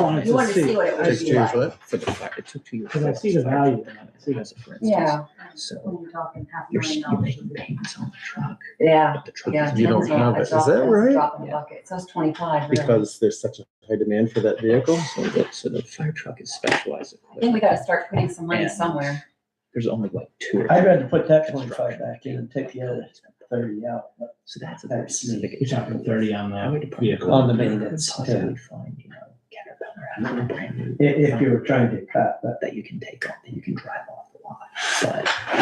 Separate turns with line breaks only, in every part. wanted
You
to
wanted to see
see,
what it would
Took two
be
years,
like.
what?
for the, fi- it took two years.
because I see the value. in it. See,
As a for instance.
Yeah,
So
when you're talking half
you're,
million
you're
dollars.
making payments on the truck,
Yeah,
but the truck
yeah.
is.
You don't
turns out
have
I
it. Is
dropped
that
this
right?
Drop in the bucket, so it's twenty-five, really.
Because there's such a high demand for that vehicle.
So the, so the fire truck is specialized.
I think we
equipment.
gotta start putting some money
And
somewhere.
There's only like two. or
I'd
three
rather put that twenty-five
construction
back in and take the other thirty out, but
So that's a very
that's me.
specific.
You're talking thirty on
Highway
the
department.
vehicle.
On the
could
maintenance,
Possibly find, you know, Caterpillar, I don't know, brand new.
i- if you were trying to cut, but
That you can take off, that you can drive off the lot,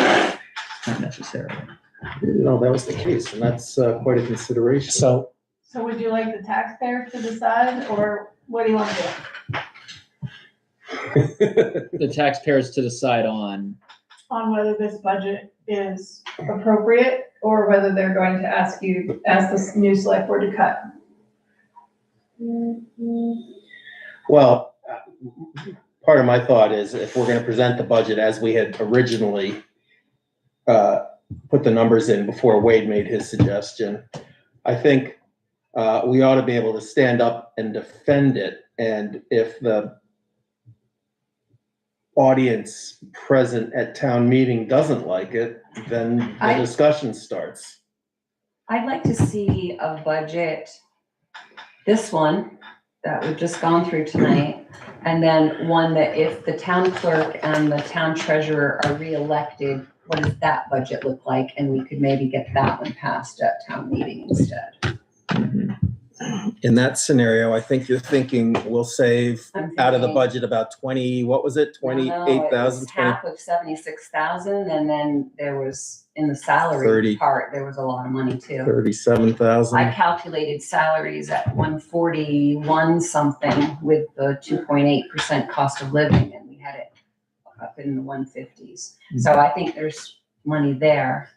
but not necessarily.
No, that was the case, and that's uh, quite a consideration.
So
So would you like the taxpayer to decide, or what do you want to do?
the taxpayers to decide on.
On whether this budget is appropriate, or whether they're going to ask you, ask this new select board to cut?
Well, uh, part of my thought is if we're gonna present the budget as we had originally uh, put the numbers in before Wade made his suggestion, I think uh, we ought to be able to stand up and defend it. And if the audience present at town meeting doesn't like it, then the
I-
discussion starts.
I'd like to see a budget, this one that we've just gone through tonight, and then one that if the town clerk and the town treasurer are reelected, what does that budget look like? And we could maybe get that one passed at town meeting instead.
In that scenario, I think you're thinking we'll save
I'm
out of the
thinking-
budget about 20, what was it?
No, no, it
28,000,
was Half of seventy-six thousand, and then there was, in the salary
Thirty.
part, there was a lot of money too.
37,000.
I calculated salaries at one forty-one something with the two point eight percent cost of living, and we had it up in the one fifties. So I think there's money there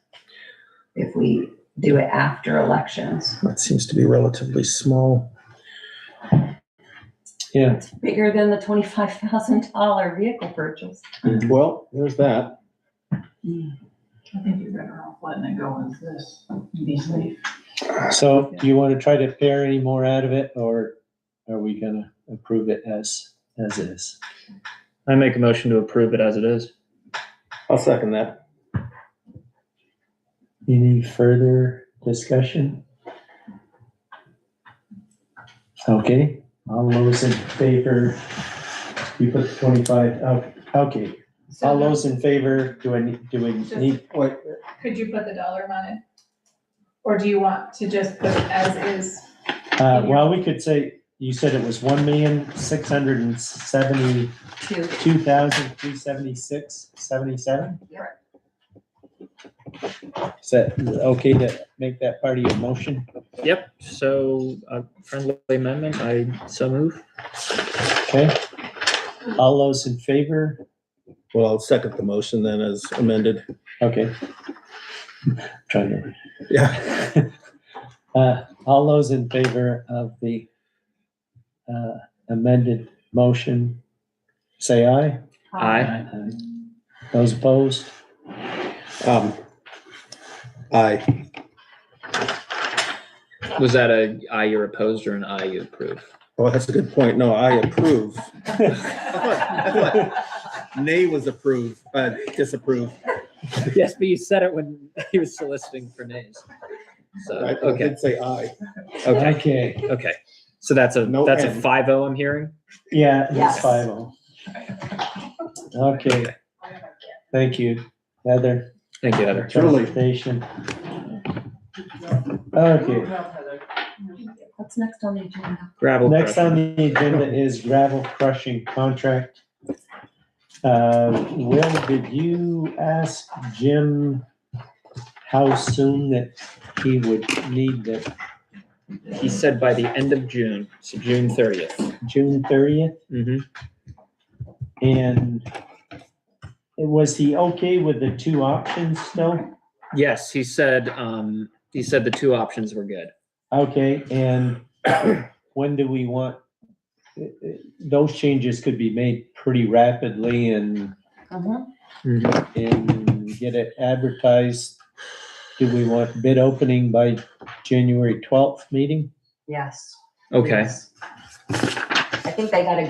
if we do it after elections.
That seems to be relatively small.
It's bigger than the twenty-five thousand dollar vehicle purchase.
Well, there's that.
I think you're better off letting it go as this, be safe.
So do you want to try to pare any more out of it or are we gonna approve it as, as is?
I make a motion to approve it as it is.
I'll second that.
Any further discussion? Okay, all those in favor, you put the twenty-five, okay, okay.
So
All those in favor, do I need, do we need,
Could you put the dollar amount in? Or do you want to just put it as is?
uh, well, we could say, you said it was one million, six hundred and seventy-two
Two,
thousand, three seventy-six, seventy-seven?
You're right.
Is that okay to make that part of your motion?
Yep, so a friendly amendment, I so move.
Okay. All those in favor?
Well, I'll second the motion then as amended.
Okay. Trying to.
Yeah.
Uh, All those in favor of the uh, amended motion, say aye.
Aye.
Aye. Those opposed?
Um, aye.
Was that a I you're opposed or an I you approve?
Well, oh, that's a good point. No, I approve. I thought Nay was approve, uh, disapprove.
Yes, but you said it when he was soliciting for nays. So,
I I
okay,
did say aye.
okay,
Okay,
okay. So that's a,
No
that's a
N.
five oh I'm hearing?
yeah, it's
Yes.
five oh. Okay, thank you, Heather.
Thank you, Heather.
Truly.
Presentation. Okay,
what's next on the agenda?
Gravel
next
crushing.
on the agenda is gravel crushing contract. Uh, Will, did you ask Jim how soon that he would need the
He said by the end of June, so June thirtieth.
June thirtieth,
Mm-hmm.
and was he okay with the two options still?
Yes, he said, um, he said the two options were good.
Okay, and when do we want? uh, Those changes could be made pretty rapidly and,
Mhm.
Mm-hmm.
and get it advertised. Do we want bid opening by January twelfth meeting?
Yes.
Okay.
yes. I think they gotta